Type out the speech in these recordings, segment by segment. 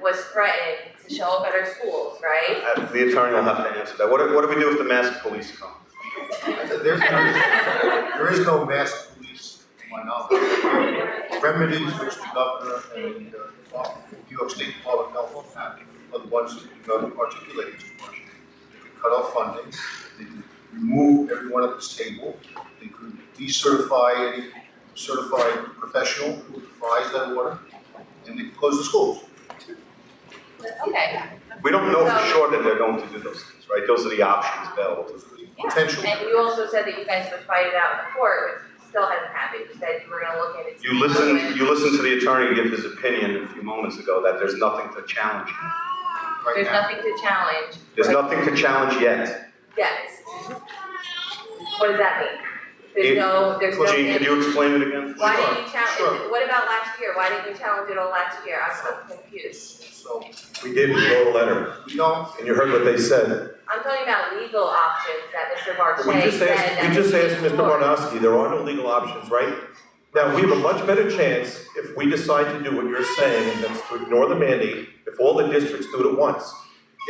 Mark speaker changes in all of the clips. Speaker 1: was threatened to show up at our schools, right?
Speaker 2: Uh, The attorney will have to answer that. What do, what do we do if the masked police come?
Speaker 3: There's no, there is no mass police, to my knowledge. Remedies which the governor and, uh, New York State Department of Health have, are the ones that you know, articulated to Washington. They could cut off funding, they could remove everyone at this table, they could decertify any certified professional who provides that order, and they could close the schools.
Speaker 1: Okay,
Speaker 2: We don't know for sure that they're going to do those things, right? Those are the options available.
Speaker 3: Those are the
Speaker 1: Yeah,
Speaker 3: Potential.
Speaker 1: and you also said that you guys would fight it out in court, which still hasn't happened, you said you were gonna look at it.
Speaker 2: You listen, you listen to the attorney give his opinion a few moments ago that there's nothing to challenge.
Speaker 3: right
Speaker 1: There's
Speaker 3: now.
Speaker 1: nothing to challenge,
Speaker 2: There's nothing to challenge yet.
Speaker 1: yes. What does that mean?
Speaker 2: It-
Speaker 1: There's no, there's no.
Speaker 2: Gene, can you explain it again?
Speaker 1: Why didn't you challenge,
Speaker 3: Sure.
Speaker 1: what about last year, why didn't you challenge it all last year, I'm so confused.
Speaker 3: So,
Speaker 2: We did, we wrote a letter,
Speaker 3: we don't
Speaker 2: and you heard what they said.
Speaker 1: I'm talking about legal options that Mr. Marche
Speaker 4: We
Speaker 1: said
Speaker 4: just asked,
Speaker 1: that.
Speaker 4: we just asked Mr.
Speaker 1: March.
Speaker 4: Barnowski, there are no legal options, right? Now, we have a much better chance if we decide to do what you're saying, and that's to ignore the mandate, if all the districts do it at once.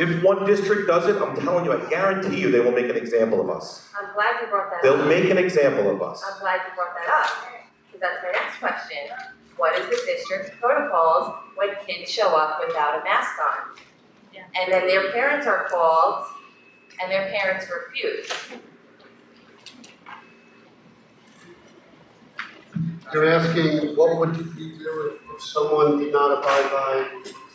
Speaker 4: If one district does it, I'm telling you, I guarantee you, they will make an example of us.
Speaker 1: I'm glad you brought that up.
Speaker 4: They'll make an example of us.
Speaker 1: I'm glad you brought that up, because that's my next question. What is the district's protocols when kids show up without a mask on?
Speaker 5: Yeah.
Speaker 1: And then their parents are called, and their parents refuse.
Speaker 3: They're asking, what would you do if- if someone did not abide by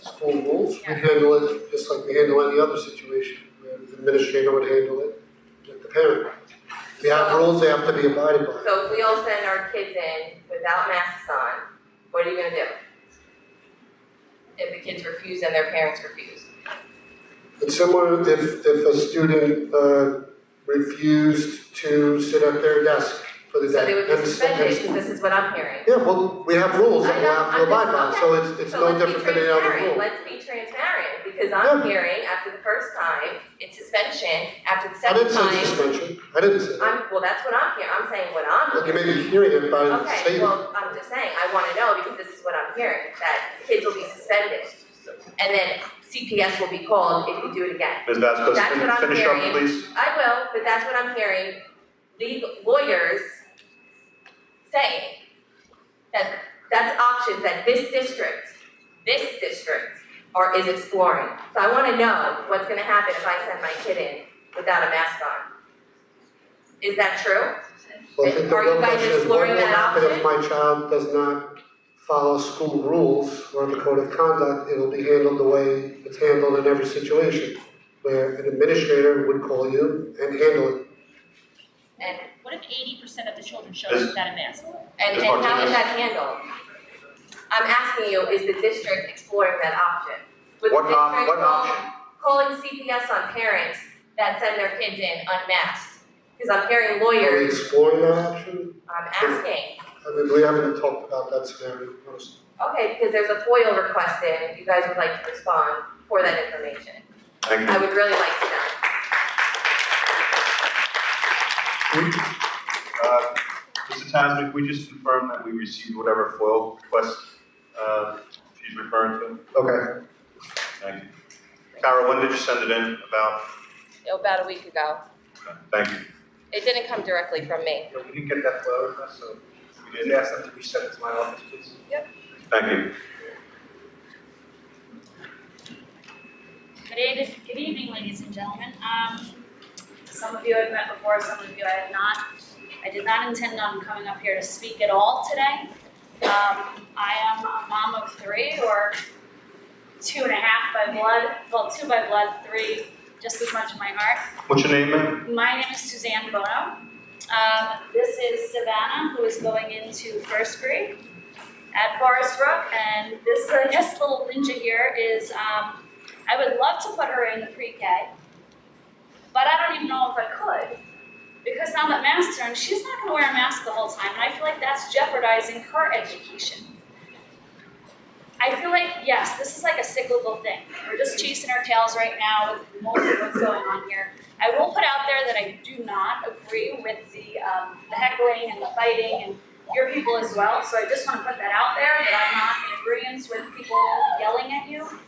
Speaker 3: school rules? We handle it just like we handle any other situation, where the administrator would handle it with the parent. We have rules they have to be abided by.
Speaker 1: So if we all send our kids in without masks on, what are you gonna do? If the kids refuse and their parents refuse?
Speaker 3: It's similar if, if a student, uh, refused to sit at their desk for the
Speaker 1: So they
Speaker 3: day.
Speaker 1: would
Speaker 3: and
Speaker 1: be
Speaker 3: s- and
Speaker 1: suspended,
Speaker 3: s-
Speaker 1: this is what I'm hearing.
Speaker 3: Yeah, well, we have rules that
Speaker 1: I
Speaker 3: we
Speaker 1: know,
Speaker 3: have to
Speaker 1: I'm
Speaker 3: abide
Speaker 1: just-
Speaker 3: by, so it's, it's
Speaker 1: So
Speaker 3: no
Speaker 1: let's be
Speaker 3: different than any other
Speaker 1: transparent,
Speaker 3: rule.
Speaker 1: let's be transparent, because I'm
Speaker 3: Yeah.
Speaker 1: hearing after the first time, it's suspension, after the
Speaker 3: I
Speaker 1: second
Speaker 3: didn't
Speaker 1: time.
Speaker 3: say suspension, I didn't say that.
Speaker 1: I'm, well, that's what I'm hearing, I'm saying what I'm
Speaker 3: Look, you
Speaker 1: hearing.
Speaker 3: may be hearing it by the
Speaker 1: Okay,
Speaker 3: statement.
Speaker 1: well, I'm just saying, I wanna know because this is what I'm hearing, that kids will be suspended. And then CPS will be called if you do it again.
Speaker 2: Ms. Vasquez,
Speaker 1: That's what I'm
Speaker 2: finish up,
Speaker 1: hearing.
Speaker 2: please.
Speaker 1: I will, but that's what I'm hearing legal lawyers saying. That, that's options that this district, this district are, is exploring. So I wanna know what's gonna happen if I send my kid in without a mask on. Is that true?
Speaker 3: Well, I think the
Speaker 1: Are you
Speaker 3: real
Speaker 1: guys
Speaker 3: question is, what
Speaker 1: exploring
Speaker 3: will
Speaker 1: that
Speaker 3: happen
Speaker 1: option?
Speaker 3: if my child does not follow school rules or the code of conduct? It'll be handled the way it's handled in every situation, where an administrator would call you and handle it.
Speaker 1: And,
Speaker 5: What if eighty percent of the children show
Speaker 2: Is-
Speaker 5: up without a mask?
Speaker 1: and,
Speaker 2: Ms.
Speaker 1: and how is
Speaker 2: Martinez?
Speaker 1: that handled? I'm asking you, is the district exploring that option? Would the
Speaker 2: What op,
Speaker 1: district
Speaker 2: what
Speaker 1: call-
Speaker 2: option?
Speaker 1: calling CPS on parents that send their kids in unmasked? Because I'm hearing
Speaker 3: Are we
Speaker 1: lawyers,
Speaker 3: exploring that option?
Speaker 1: I'm asking,
Speaker 3: I mean, we haven't talked about that scenario, honestly.
Speaker 1: okay, because there's a FOIL request in, if you guys would like to respond for that information.
Speaker 2: Thank you.
Speaker 1: I would really like to know.
Speaker 2: Uh, Mr. Tasman, can we just confirm that we received whatever FOIL request uh, she's referring to?
Speaker 3: Okay,
Speaker 2: Thank you. Kara, when did you send it in about?
Speaker 1: About a week ago.
Speaker 2: Thank you.
Speaker 1: It didn't come directly from me.
Speaker 6: Yeah, we didn't get that FOIL request, so we did ask them to resend it to my office, please.
Speaker 2: Thank you.
Speaker 5: Good evening, good evening, ladies and gentlemen. Um, some of you I've met before, some of you I have not. I did not intend on coming up here to speak at all today. Um, I am a mom of three or two and a half by blood, well, two by blood, three just as much in my heart.
Speaker 2: What's your name, ma'am?
Speaker 5: My name is Suzanne Bono. Um, this is Savannah, who is going into first grade at Forest Brook, and this, I guess, little ninja here is, um, I would love to put her in the pre-K, but I don't even know if I could, because now that masks are on, she's not gonna wear a mask the whole time, and I feel like that's jeopardizing her education. I feel like, yes, this is like a cyclical thing. We're just chasing our tails right now with most of what's going on here. I will put out there that I do not agree with the, um, the heckling and the fighting and your people as well. So I just wanna put that out there, that I'm not in agreement with people yelling at you.